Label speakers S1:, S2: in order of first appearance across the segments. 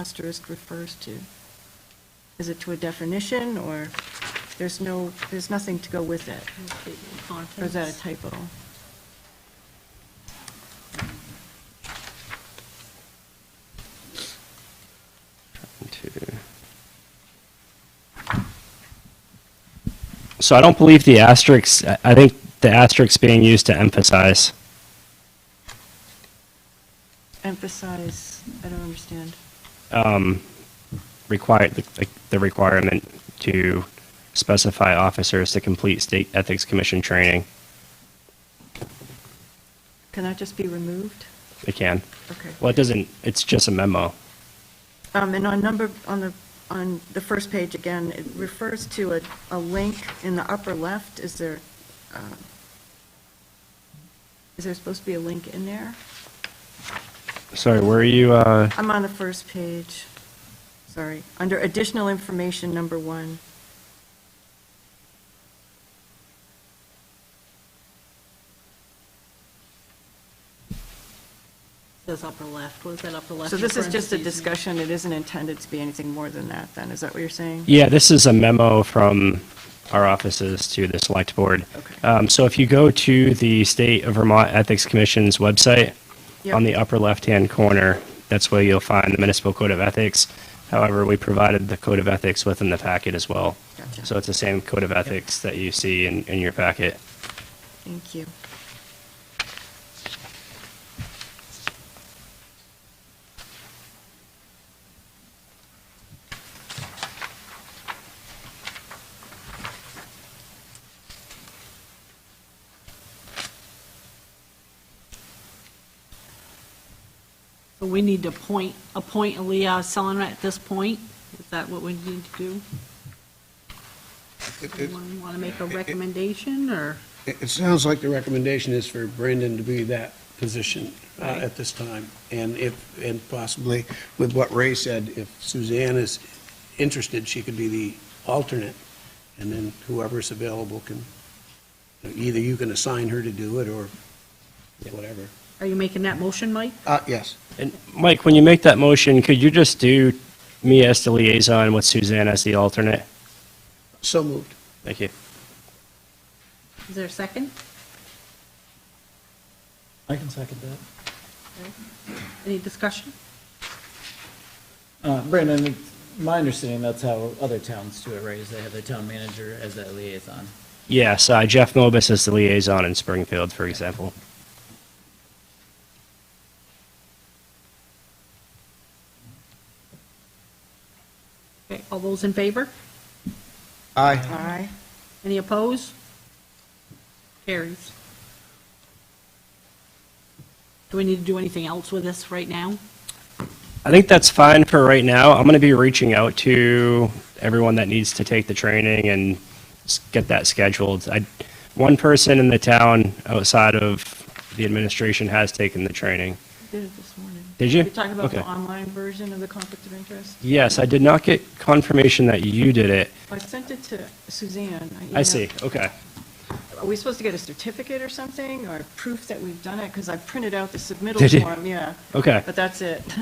S1: asterisk refers to? Is it to a definition, or there's no, there's nothing to go with it? Or is that a typo?
S2: Two. So I don't believe the asterisks, I- I think the asterisks being used to emphasize.
S1: Emphasize, I don't understand.
S2: um, required, like, the requirement to specify officers to complete state ethics commission training.
S1: Can that just be removed?
S2: They can.
S1: Okay.
S2: Well, it doesn't, it's just a memo.
S1: Um, And on number, on the, on the first page again, it refers to a, a link in the upper left. Is there, um, is there supposed to be a link in there?
S2: Sorry, where are you, uh,
S1: I'm on the first page, sorry, under additional information, number one.
S3: Says upper left, was that upper left?
S1: So
S3: in
S1: this is just a
S3: parentheses?
S1: discussion, it isn't intended to be anything more than that, then, is that what you're saying?
S2: yeah, this is a memo from our offices to the select board.
S1: Okay.
S2: Um, so if you go to the State of Vermont Ethics Commission's website,
S1: Yep.
S2: on the upper left-hand corner, that's where you'll find the municipal code of ethics. However, we provided the code of ethics within the packet as well.
S1: Gotcha.
S2: So it's the same code of ethics that you see in, in your packet.
S1: Thank you.
S3: So we need to appoint, appoint Leah Selenar at this point? Is that what we need to do?
S4: It- it-
S3: Anyone want to make a recommendation, or?
S4: It it sounds like the recommendation is for Brandon to be that position uh, at this time. And if, and possibly with what Ray said, if Suzanne is interested, she could be the alternate. And then whoever's available can, either you can assign her to do it or whatever.
S3: Are you making that motion, Mike?
S4: Uh, yes.
S2: And Mike, when you make that motion, could you just do me as the liaison with Suzanne as the alternate?
S4: So moved.
S2: Thank you.
S3: Is there a second?
S5: I can second that.
S3: Any discussion?
S5: Uh, Brandon, it's my understanding, that's how other towns do it, right? Is they have their town manager as that liaison.
S2: Yes, uh, Jeff Mobus is the liaison in Springfield, for example.
S3: Okay, all those in favor?
S4: Aye.
S1: Aye.
S3: Any opposed? Carries. Do we need to do anything else with this right now?
S2: I think that's fine for right now. I'm going to be reaching out to everyone that needs to take the training and s- get that scheduled. I, one person in the town outside of the administration has taken the training.
S1: Did it this morning.
S2: Did you?
S1: You're talking about the
S2: Okay.
S1: online version of the conflict of interest?
S2: Yes, I did not get confirmation that you did it.
S1: I sent it to Suzanne.
S2: I
S1: emailed-
S2: see. Okay.
S1: Are we supposed to get a certificate or something, or proof that we've done it? Because I printed out the
S2: Did you?
S1: submittal form, yeah,
S2: Okay.
S1: but that's it.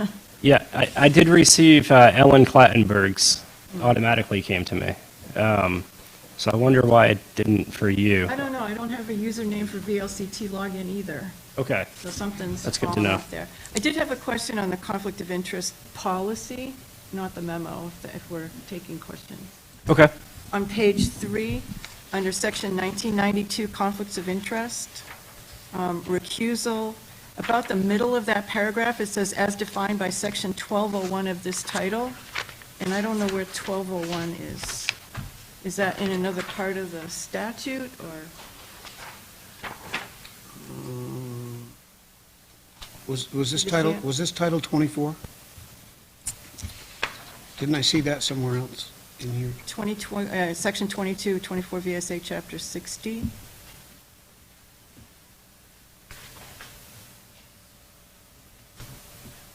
S2: Yeah, I, I did receive uh, Ellen Clattenburg's
S1: Mm-hmm.
S2: automatically came to me. Um, so I wonder why it didn't for you.
S1: I don't know, I don't have a username for VLCT login either,
S2: Okay.
S1: so something's
S2: That's good to
S1: falling
S2: know.
S1: off there. I did have a question on the conflict of interest policy, not the memo, if- if we're taking questions.
S2: Okay.
S1: On page three, under section 1992, conflicts of interest, um, recusal, about the middle of that paragraph, it says, "As defined by section 1201 of this title," and I don't know where 1201 is. Is that in another part of the statute, or?
S4: Uh, Was, was this
S1: Did you see
S4: title,
S1: it?
S4: was this title 24? Didn't I see that somewhere else in here?
S1: 22, uh, section 22, 24 VSA, chapter 60?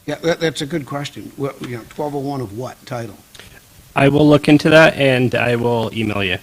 S4: Yeah, that, that's a good question. oh What, you know, 1201 of what title?
S2: I will look into that and I will email you.